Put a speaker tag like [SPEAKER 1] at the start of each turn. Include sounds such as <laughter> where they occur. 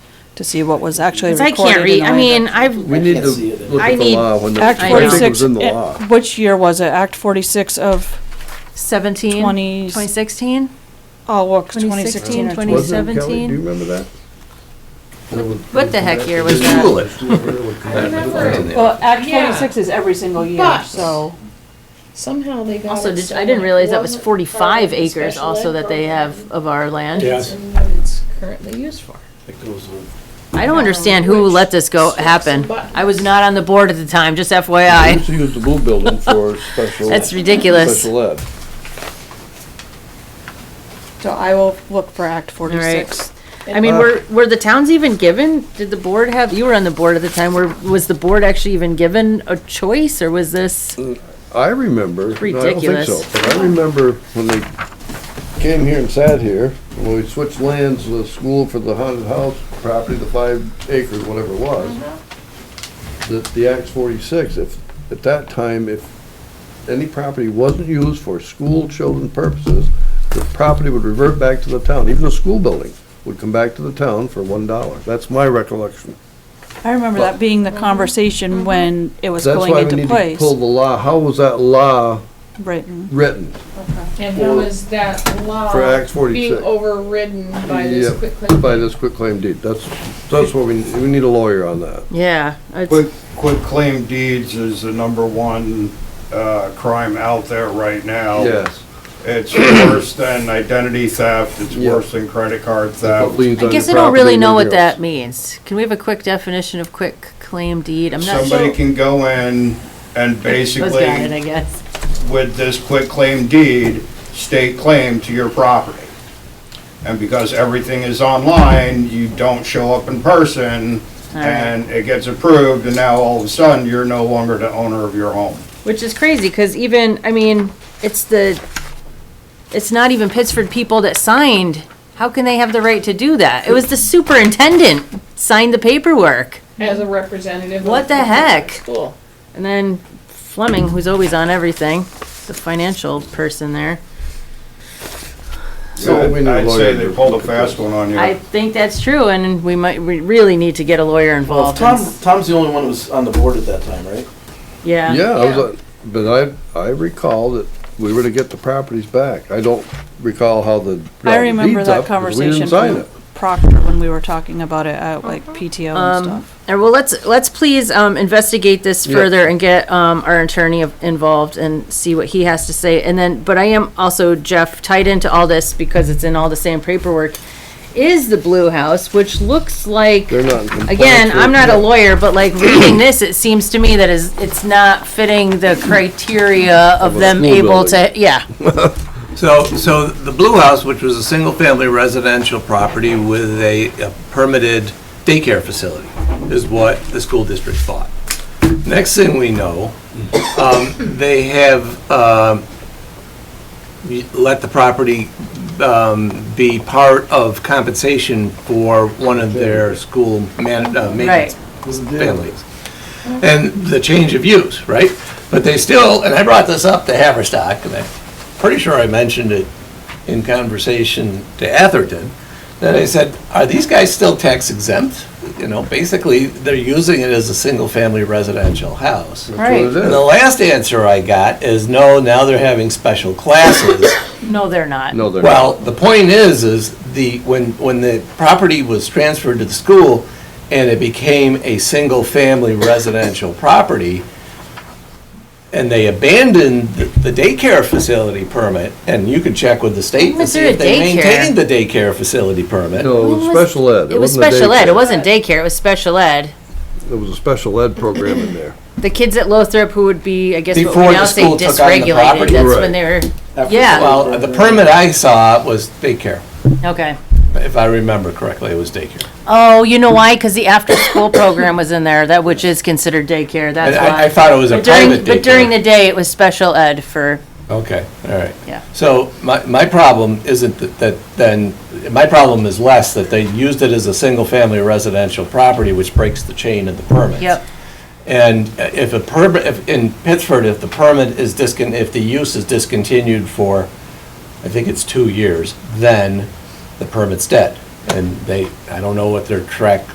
[SPEAKER 1] to see what was actually
[SPEAKER 2] 'Cause I
[SPEAKER 1] recorded.
[SPEAKER 2] can't read,
[SPEAKER 1] in the
[SPEAKER 2] I
[SPEAKER 1] way that-
[SPEAKER 2] mean, I've,
[SPEAKER 3] We need to
[SPEAKER 4] can't see it.
[SPEAKER 3] look
[SPEAKER 2] I
[SPEAKER 3] at the
[SPEAKER 2] need-
[SPEAKER 3] law when the, I
[SPEAKER 1] Act
[SPEAKER 2] I
[SPEAKER 3] think it
[SPEAKER 1] forty-six.
[SPEAKER 3] was in the
[SPEAKER 1] eh,
[SPEAKER 3] law.
[SPEAKER 1] Which year was it? Act forty-six of
[SPEAKER 2] 17,
[SPEAKER 1] twenty,
[SPEAKER 2] 2016,
[SPEAKER 1] oh, look, twenty
[SPEAKER 2] 2016,
[SPEAKER 1] sixteen or
[SPEAKER 2] 20
[SPEAKER 1] twenty.
[SPEAKER 3] Wasn't it, Kelly? Do you
[SPEAKER 2] 2017?
[SPEAKER 3] remember that?
[SPEAKER 2] What the heck year was
[SPEAKER 3] Just
[SPEAKER 2] that?
[SPEAKER 3] Google
[SPEAKER 4] <laughs>
[SPEAKER 3] it.
[SPEAKER 1] Well, Act
[SPEAKER 5] Yeah.
[SPEAKER 1] forty-six is every single year,
[SPEAKER 5] But-
[SPEAKER 1] so.
[SPEAKER 5] Somehow they got.
[SPEAKER 2] Also,
[SPEAKER 5] it
[SPEAKER 2] did,
[SPEAKER 5] so
[SPEAKER 2] I didn't realize that was
[SPEAKER 5] wasn't part of
[SPEAKER 2] forty-five
[SPEAKER 5] the
[SPEAKER 2] acres
[SPEAKER 5] special
[SPEAKER 2] also
[SPEAKER 5] ed
[SPEAKER 2] that they
[SPEAKER 5] program.
[SPEAKER 2] have of our land.
[SPEAKER 4] Yes.
[SPEAKER 5] And what it's currently used for.
[SPEAKER 4] It goes on.
[SPEAKER 2] I don't understand who
[SPEAKER 5] Which
[SPEAKER 2] let this go
[SPEAKER 5] strips
[SPEAKER 2] happen.
[SPEAKER 5] and buttons.
[SPEAKER 2] I was not on the board at the time, just
[SPEAKER 6] We
[SPEAKER 3] <laughs>
[SPEAKER 2] FYI.
[SPEAKER 6] used to use the blue building for special.
[SPEAKER 2] That's ridiculous.
[SPEAKER 6] Special ed.
[SPEAKER 1] So I will look for Act forty-six.
[SPEAKER 2] I mean, were, were the towns even given, did the board have, you were on the board at the time, were, was the board actually even given a choice, or was this?
[SPEAKER 3] I remember. no, I don't think so,
[SPEAKER 2] Ridiculous.
[SPEAKER 3] but I remember when they came here and sat here, when we switched lands, the school for the haunted house property, the five acres, whatever it was.
[SPEAKER 1] Uh-huh.
[SPEAKER 3] That the Act forty-six, if, at that time, if any property wasn't used for school children purposes, the property would revert back to the town, even a school building would come back to the town for one dollar. That's my recollection.
[SPEAKER 1] I remember that being the conversation when it was
[SPEAKER 3] That's
[SPEAKER 1] going
[SPEAKER 3] why we
[SPEAKER 1] into
[SPEAKER 3] need to
[SPEAKER 1] place.
[SPEAKER 3] pull the law, how was that law
[SPEAKER 1] Written.
[SPEAKER 3] written?
[SPEAKER 5] And how is that
[SPEAKER 3] For
[SPEAKER 5] law
[SPEAKER 3] Act 46.
[SPEAKER 5] being overridden by this
[SPEAKER 3] Yep,
[SPEAKER 5] quick claim?
[SPEAKER 3] By this quick claim deed, that's, that's what we, we need a lawyer on that.
[SPEAKER 2] Yeah, it's,
[SPEAKER 7] Quick, quick claim deeds is the number one, uh, crime out there right now.
[SPEAKER 3] Yes.
[SPEAKER 7] It's worse than identity theft, it's
[SPEAKER 3] Yeah.
[SPEAKER 7] worse than credit card
[SPEAKER 3] What
[SPEAKER 7] theft.
[SPEAKER 3] liens
[SPEAKER 2] I
[SPEAKER 3] on
[SPEAKER 2] guess I
[SPEAKER 3] your
[SPEAKER 2] don't really
[SPEAKER 3] property,
[SPEAKER 2] know what
[SPEAKER 3] nobody else.
[SPEAKER 2] that means. Can we have a quick definition of quick claim deed? I'm not
[SPEAKER 7] Somebody
[SPEAKER 2] sure.
[SPEAKER 7] can go in and
[SPEAKER 2] Was got it, I
[SPEAKER 7] basically,
[SPEAKER 2] guess.
[SPEAKER 7] with this quick claim deed, state claim to your property. And because everything is online, you don't show up in person,
[SPEAKER 2] right.
[SPEAKER 7] and it gets approved, and now all of a sudden, you're no longer the owner of your home.
[SPEAKER 2] Which is crazy, because even, I mean, it's the, it's not even Pittsford people that signed. How can they have the right to do that? It was the superintendent signed the paperwork.
[SPEAKER 5] As a representative. of
[SPEAKER 2] What the heck?
[SPEAKER 5] School.
[SPEAKER 2] And then Fleming, who's always on everything, the financial person there.
[SPEAKER 3] So we need a
[SPEAKER 7] I'd
[SPEAKER 3] lawyer
[SPEAKER 7] say
[SPEAKER 3] to
[SPEAKER 7] they pulled
[SPEAKER 3] look
[SPEAKER 7] a
[SPEAKER 3] at
[SPEAKER 7] fast
[SPEAKER 3] this.
[SPEAKER 7] one on you.
[SPEAKER 2] I think that's true, and we might, we really need to get a lawyer
[SPEAKER 4] Well,
[SPEAKER 2] involved. in
[SPEAKER 4] Tom,
[SPEAKER 2] s-
[SPEAKER 4] Tom's the only one who was on the board at that time, right?
[SPEAKER 2] Yeah,
[SPEAKER 3] Yeah, I was, like- but I, I recall that we were to get the properties back. I don't recall how the.
[SPEAKER 1] I remember
[SPEAKER 3] deeds
[SPEAKER 1] that
[SPEAKER 3] up, 'cause we
[SPEAKER 1] conversation
[SPEAKER 3] didn't sign
[SPEAKER 1] from
[SPEAKER 3] it.
[SPEAKER 1] Proctor when we were talking about it at like PTO and stuff.
[SPEAKER 2] And well, let's, let's please, um, investigate this
[SPEAKER 3] Yeah.
[SPEAKER 2] further and get, um, our attorney of- involved and see what he has to say. And then, but I am also, Jeff, tied into all this because it's in all the same paperwork, is the Blue House, which looks like.
[SPEAKER 3] They're not in compliance.
[SPEAKER 2] Again, I'm
[SPEAKER 3] with
[SPEAKER 2] not a
[SPEAKER 3] that.
[SPEAKER 2] lawyer, but
[SPEAKER 3] <clears throat>
[SPEAKER 2] like reading this, it seems to me that is, it's not fitting the criteria of
[SPEAKER 3] a
[SPEAKER 2] them
[SPEAKER 3] school
[SPEAKER 2] able to,
[SPEAKER 3] building.
[SPEAKER 2] yeah.
[SPEAKER 8] So, so the Blue House, which was a single-family residential property with a a permitted daycare facility, is what the school district bought. Next thing we know, um, they have um, y- let the property um, be part of compensation for one of their school man, uh, maintenance families. And the change of use, right? But they still, and I brought this up to Haverstock, and I'm pretty sure I mentioned it in conversation to Atherton, that I said, are these guys still tax exempt? You know, basically, they're using it as a single-family residential house.
[SPEAKER 3] That's what it
[SPEAKER 8] And
[SPEAKER 3] is.
[SPEAKER 8] the last answer I got is, no, now they're having special classes.
[SPEAKER 2] No, they're not.
[SPEAKER 3] No, they're not.
[SPEAKER 8] Well, the point is, is the, when, when the property was transferred to the school and it became a single-family residential property, and they abandoned the the daycare facility permit, and you could check with the state to
[SPEAKER 2] Was
[SPEAKER 8] see
[SPEAKER 2] there a
[SPEAKER 8] if they
[SPEAKER 2] daycare?
[SPEAKER 8] maintained the daycare facility permit.
[SPEAKER 3] No, it was
[SPEAKER 2] Well,
[SPEAKER 3] special ed.
[SPEAKER 2] It was
[SPEAKER 3] wasn't a
[SPEAKER 2] special ed, it
[SPEAKER 3] daycare.
[SPEAKER 2] wasn't daycare, it was special ed.
[SPEAKER 3] There was a special ed program in there.
[SPEAKER 2] The kids at Lothrop who would be, I guess, what
[SPEAKER 8] Before
[SPEAKER 2] we
[SPEAKER 8] the
[SPEAKER 2] now say
[SPEAKER 8] school took on the
[SPEAKER 2] dysregulated,
[SPEAKER 8] property.
[SPEAKER 2] that's
[SPEAKER 3] Right.
[SPEAKER 2] when they were,
[SPEAKER 4] After
[SPEAKER 2] Yeah.
[SPEAKER 4] the-
[SPEAKER 8] Well, the permit I saw was daycare,
[SPEAKER 2] okay.
[SPEAKER 8] if I remember correctly, it was daycare.
[SPEAKER 2] Oh, you know why? Because the after-school program was in there, that which is considered daycare, that's
[SPEAKER 8] And I, I
[SPEAKER 2] why.
[SPEAKER 8] thought it was a
[SPEAKER 2] But during,
[SPEAKER 8] private daycare.
[SPEAKER 2] but during the day, it was special ed for,
[SPEAKER 8] Okay, all right.
[SPEAKER 2] Yeah.
[SPEAKER 8] So my, my problem isn't that- that, then, my problem is less that they used it as a single-family residential property, which breaks the chain of the permits.
[SPEAKER 2] yep.
[SPEAKER 8] And if a permit, if, in Pittsford, if the permit is discon, if the use is discontinued for, I think it's two years, then the permit's dead. And they, I don't know what their track